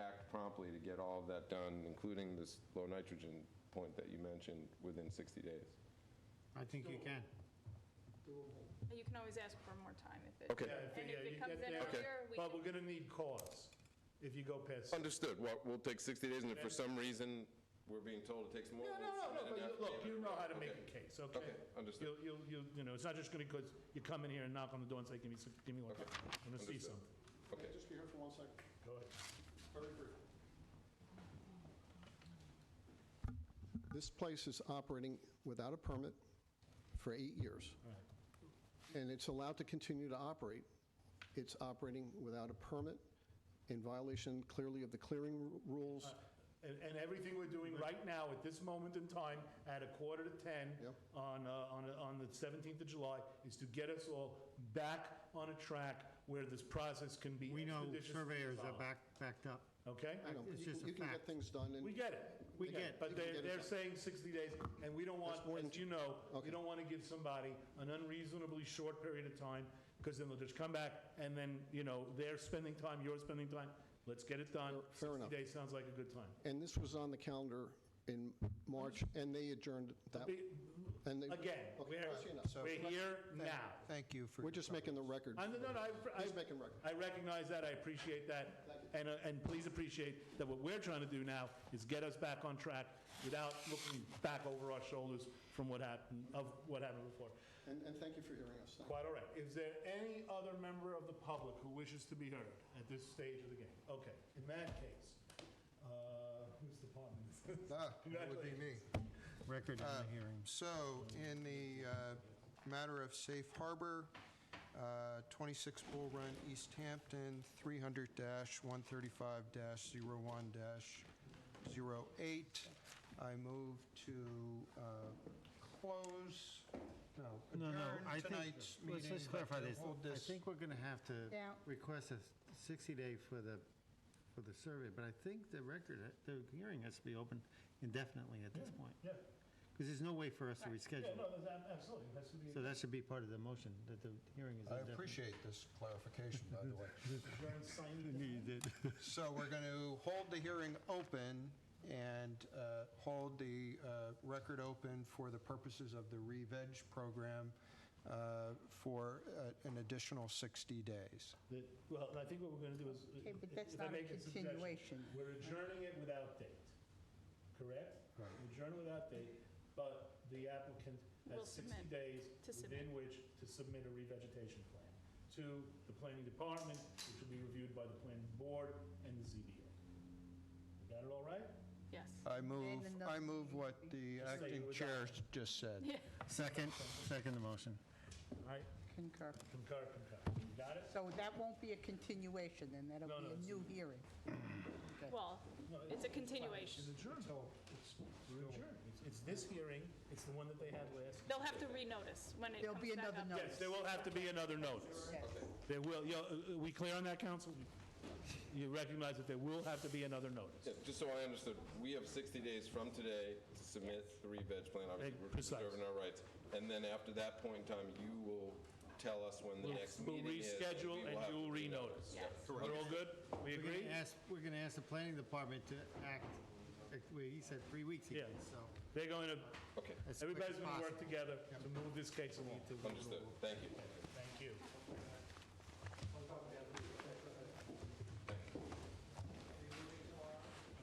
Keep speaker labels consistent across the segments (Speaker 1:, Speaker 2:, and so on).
Speaker 1: act promptly to get all of that done, including this low nitrogen point that you mentioned, within 60 days.
Speaker 2: I think you can.
Speaker 3: You can always ask for more time if it.
Speaker 1: Okay.
Speaker 4: Yeah, if-
Speaker 3: And
Speaker 4: yeah,
Speaker 3: if
Speaker 4: you
Speaker 3: it comes
Speaker 4: get
Speaker 3: in
Speaker 4: that-
Speaker 3: earlier, we
Speaker 4: But we're
Speaker 3: can,
Speaker 4: gonna need cause if you go past. No,
Speaker 1: Understood. Well, we'll take 60 days, and if for some reason we're being told it takes more.
Speaker 4: no,
Speaker 1: we'll
Speaker 4: no, no,
Speaker 1: submit an
Speaker 4: but you- look, you
Speaker 1: affidavit.
Speaker 4: know how to make
Speaker 1: Okay.
Speaker 4: a case, okay?
Speaker 1: Okay, understood.
Speaker 4: You'll, you'll, you, you know, it's not just gonna, because you come in here and knock on the door and say, give me, some- give me one,
Speaker 1: Okay,
Speaker 4: I'm gonna see
Speaker 1: understood.
Speaker 4: something.
Speaker 1: Okay.
Speaker 5: Just be here for one second,
Speaker 4: Go ahead.
Speaker 5: very brief. This place is operating without a permit for eight years. And it's allowed to continue to operate. It's operating without a permit, in violation clearly of the clearing ru- rules.
Speaker 4: And, and everything we're doing right now, at this moment in time, at a quarter to 10
Speaker 5: Yep.
Speaker 4: on, uh, on, uh, on the 17th of July, is to get us all back on a track where this process can be
Speaker 2: We know
Speaker 4: expeditiously
Speaker 2: surveyors are
Speaker 4: followed.
Speaker 2: back, backed up.
Speaker 4: Okay?
Speaker 5: You know,
Speaker 2: It's
Speaker 5: you
Speaker 2: just
Speaker 5: can-
Speaker 2: a
Speaker 5: You can
Speaker 2: fact.
Speaker 5: get things done,
Speaker 4: We
Speaker 5: and
Speaker 4: get it, we get it, but
Speaker 5: You can
Speaker 4: they're,
Speaker 5: get it
Speaker 4: they're
Speaker 5: done.
Speaker 4: saying 60 days, and we don't want,
Speaker 5: That's more than-
Speaker 4: as you know, we
Speaker 5: Okay.
Speaker 4: don't want to give somebody an unreasonably short period of time, because then they'll just come back, and then, you know, they're spending time, you're spending time, let's get it done.
Speaker 5: Fair- fair enough.
Speaker 4: 60 days sounds like a good time.
Speaker 5: and this was on the calendar in March, and they adjourned that.
Speaker 4: Be-
Speaker 5: and they-
Speaker 4: Again,
Speaker 5: Okay,
Speaker 4: we're,
Speaker 5: that's enough.
Speaker 4: we're here now.
Speaker 6: Thank you for.
Speaker 5: We're just making the record.
Speaker 4: I, no, no, I, I-
Speaker 5: He's making record.
Speaker 4: I recognize that, I appreciate that, and, uh, and please appreciate that what we're trying to do now is get us back on track without looking back over our shoulders from what happened, of what happened before.
Speaker 5: And, and thank you for hearing us. Thank you.
Speaker 4: Quite all right. Is there any other member of the public who wishes to be heard at this stage of the game? Okay, in that case, uh, whose department is this?
Speaker 6: Ah, that would be me.
Speaker 2: Record
Speaker 6: Uh,
Speaker 2: of the hearing.
Speaker 6: So in the uh, matter of Safe Harbor, uh, 26 Bull Run, East Hampton, 300-135-01-08, I move to uh, close, no,
Speaker 2: No, no, I
Speaker 6: adjourn
Speaker 2: think,
Speaker 6: tonight's
Speaker 2: let's
Speaker 6: meeting.
Speaker 2: just clarify
Speaker 6: to
Speaker 2: this.
Speaker 6: hold
Speaker 2: I think we're going to have to
Speaker 7: Yeah.
Speaker 2: request a 60-day for the, for the survey, but I think the record, the hearing has to be open indefinitely at this point,
Speaker 4: Yeah,
Speaker 2: because there's no way for us to
Speaker 4: yeah,
Speaker 2: reschedule.
Speaker 4: no, that's- absolutely, that's to be.
Speaker 2: So that should be part of the motion, that the hearing is
Speaker 6: I
Speaker 2: indefinite.
Speaker 6: appreciate this clarification, by the way.
Speaker 2: You did.
Speaker 6: So we're going to hold the hearing open and uh, hold the uh, record open for the purposes of the re-veg program uh, for uh, an additional 60 days.
Speaker 4: That- Well, I think what we're going to do is.
Speaker 7: Okay, but that's
Speaker 4: if I
Speaker 7: not a
Speaker 4: make suggestion,
Speaker 7: continuation.
Speaker 4: We're adjourning it without date, correct? We Adjourn without date, but the applicant
Speaker 3: Will
Speaker 4: has 60
Speaker 3: submit.
Speaker 4: days
Speaker 3: To submit.
Speaker 4: within which to submit a revegetation plan to the planning department, which will be reviewed by the planning board and the ZBA. Got it all right?
Speaker 3: yes.
Speaker 6: I move,
Speaker 7: another
Speaker 6: I move what the
Speaker 4: Just say you
Speaker 6: acting
Speaker 4: adopt.
Speaker 6: chair just said.
Speaker 2: Second, second the motion.
Speaker 4: All right,
Speaker 7: Concur.
Speaker 4: concur, concur. You Got it?
Speaker 7: So that won't be a continuation, then that'll
Speaker 4: No,
Speaker 7: be
Speaker 4: no,
Speaker 7: a
Speaker 4: it's-
Speaker 7: new hearing.
Speaker 3: Well, it's a continuation.
Speaker 4: It's adjourned. We're adjourned. It's- It's this hearing, it's the one that they had last.
Speaker 3: They'll have to renotice when it
Speaker 7: There'll
Speaker 3: comes
Speaker 7: be
Speaker 3: back
Speaker 7: another
Speaker 3: up.
Speaker 7: notice.
Speaker 4: Yes, there will have to be another notice.
Speaker 7: Yes.
Speaker 4: There will, you know, uh, we clear on that, council? You recognize that there will have to be another notice?
Speaker 1: Yeah, Just so I understood, we have 60 days from today to submit the re-veg plan, obviously,
Speaker 4: Eh,
Speaker 1: we're
Speaker 4: precise.
Speaker 1: preserving our rights. And then after that point in time, you will tell us when the
Speaker 4: We'll
Speaker 1: next meeting is.
Speaker 4: reschedule
Speaker 1: We will
Speaker 4: and
Speaker 1: have
Speaker 4: you will
Speaker 1: to
Speaker 4: renotice. We're all good? We
Speaker 2: We're going
Speaker 4: agree?
Speaker 2: to ask, we're going to ask the planning department to act, like, well, he said three weeks
Speaker 4: Yeah.
Speaker 2: again, so.
Speaker 4: They're going to,
Speaker 1: Okay,
Speaker 2: as quick
Speaker 4: everybody's
Speaker 2: as
Speaker 4: going to work
Speaker 2: possible.
Speaker 4: together to move this case along.
Speaker 1: understood, thank you.
Speaker 4: Thank you.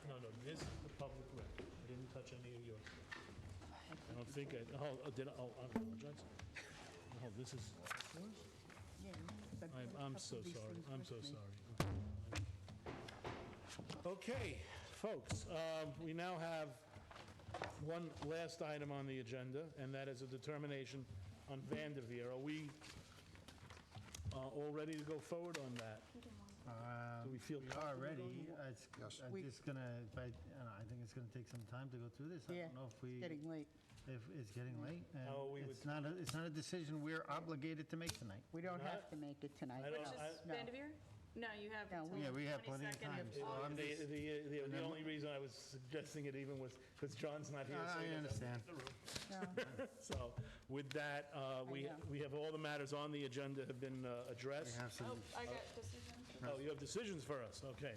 Speaker 4: No, no, this is the public record. I didn't touch any of yours. I don't think I, oh, oh, did I, oh, I apologize. Oh, this is,
Speaker 7: Yeah, but
Speaker 4: I'm, I'm so
Speaker 7: couple of these
Speaker 4: sorry,
Speaker 7: things
Speaker 4: I'm
Speaker 7: with
Speaker 4: so
Speaker 7: me.
Speaker 4: sorry. Okay, folks, um, we now have one last item on the agenda, and that is a determination on Vanderveer. Are we uh, all ready to go forward on that? Do we feel
Speaker 2: We
Speaker 4: comfortable
Speaker 2: are ready. Um, It's,
Speaker 6: Yes.
Speaker 2: I'm
Speaker 7: We-
Speaker 2: just gonna, but, you know, I think it's gonna take some time to go through this. I
Speaker 7: Yeah,
Speaker 2: don't know if
Speaker 7: it's
Speaker 2: we,
Speaker 7: getting late.
Speaker 2: if it's getting late. and
Speaker 4: Oh, we would-
Speaker 2: It's not, a- it's not a decision we're obligated to make tonight.
Speaker 7: We don't
Speaker 4: Not-
Speaker 7: have to make it tonight.
Speaker 4: I don't-
Speaker 7: no,
Speaker 3: Which is
Speaker 7: no.
Speaker 3: Vanderveer? No, you have
Speaker 7: No,
Speaker 3: until
Speaker 7: we-
Speaker 2: Yeah, we have
Speaker 3: the
Speaker 2: plenty of
Speaker 3: 22nd
Speaker 2: time,
Speaker 3: of
Speaker 2: so I'm
Speaker 3: August.
Speaker 4: The,
Speaker 2: just,
Speaker 4: the, the- the only reason I was suggesting it even was, because John's not here. so
Speaker 2: I
Speaker 4: he doesn't-
Speaker 2: understand.
Speaker 7: No.
Speaker 4: So with that, uh, we,
Speaker 7: I know.
Speaker 4: we have all the matters on the agenda have been uh,
Speaker 2: We
Speaker 4: addressed.
Speaker 2: have some
Speaker 3: I got decision.
Speaker 4: Oh, you have decisions for us, okay.